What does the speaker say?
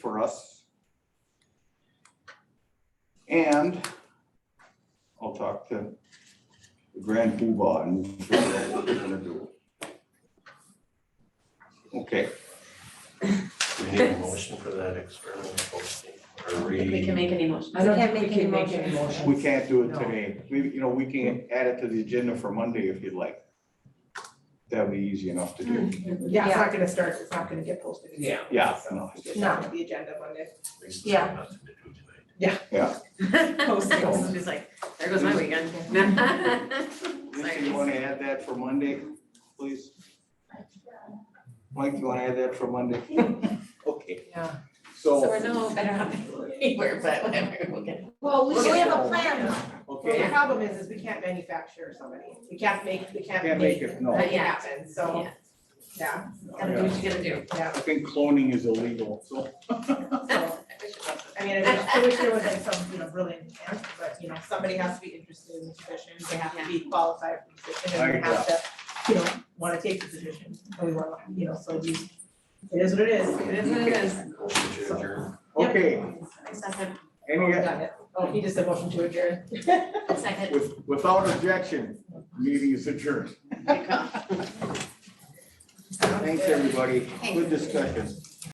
us. And I'll talk to the grand poobah and we'll figure out what we're gonna do. Okay, We need a motion for that experimental posting, or I don't think we we, can make any motion. I don't think we can make any we motions. can't do it No. today. We, you know, we can add it to the agenda for Monday if you'd like. That'd be easy enough to do. Mm-hmm. Yeah, it's not gonna start, it's not gonna get posted. Yeah. Yeah, So, no, It's not on the agenda Monday. at least it's Yeah. got nothing to do tonight. She's like, there goes my weekend. Lisa, you wanna add that for Monday, please? Mike, you wanna add that for Monday? Okay, Yeah. So so, we're no better off anywhere, but whatever, we'll get. Well, We should have a plan though. Well, the okay, problem is, is we can't manufacture somebody, we can't make, we can't Can't make make it it, no. happen, so, Yeah, yeah, Gotta do what you gotta do. yeah. I think cloning is illegal, so. I So, wish it wasn't. I mean, I wish, I wish there was like some, you know, brilliant answer, but, you know, somebody has to be interested in the position, they have to be qualified for the position, and Right, they have to, you know, wanna take the position, and we wanna, you know, so we, it is what it is, it is what it is. Motion to adjourn. Yep. Okay, Second, any, Done it. Oh, he just said motion to adjourn. second. with, without objection, meeting is adjourned. Thanks, everybody. Good discussion.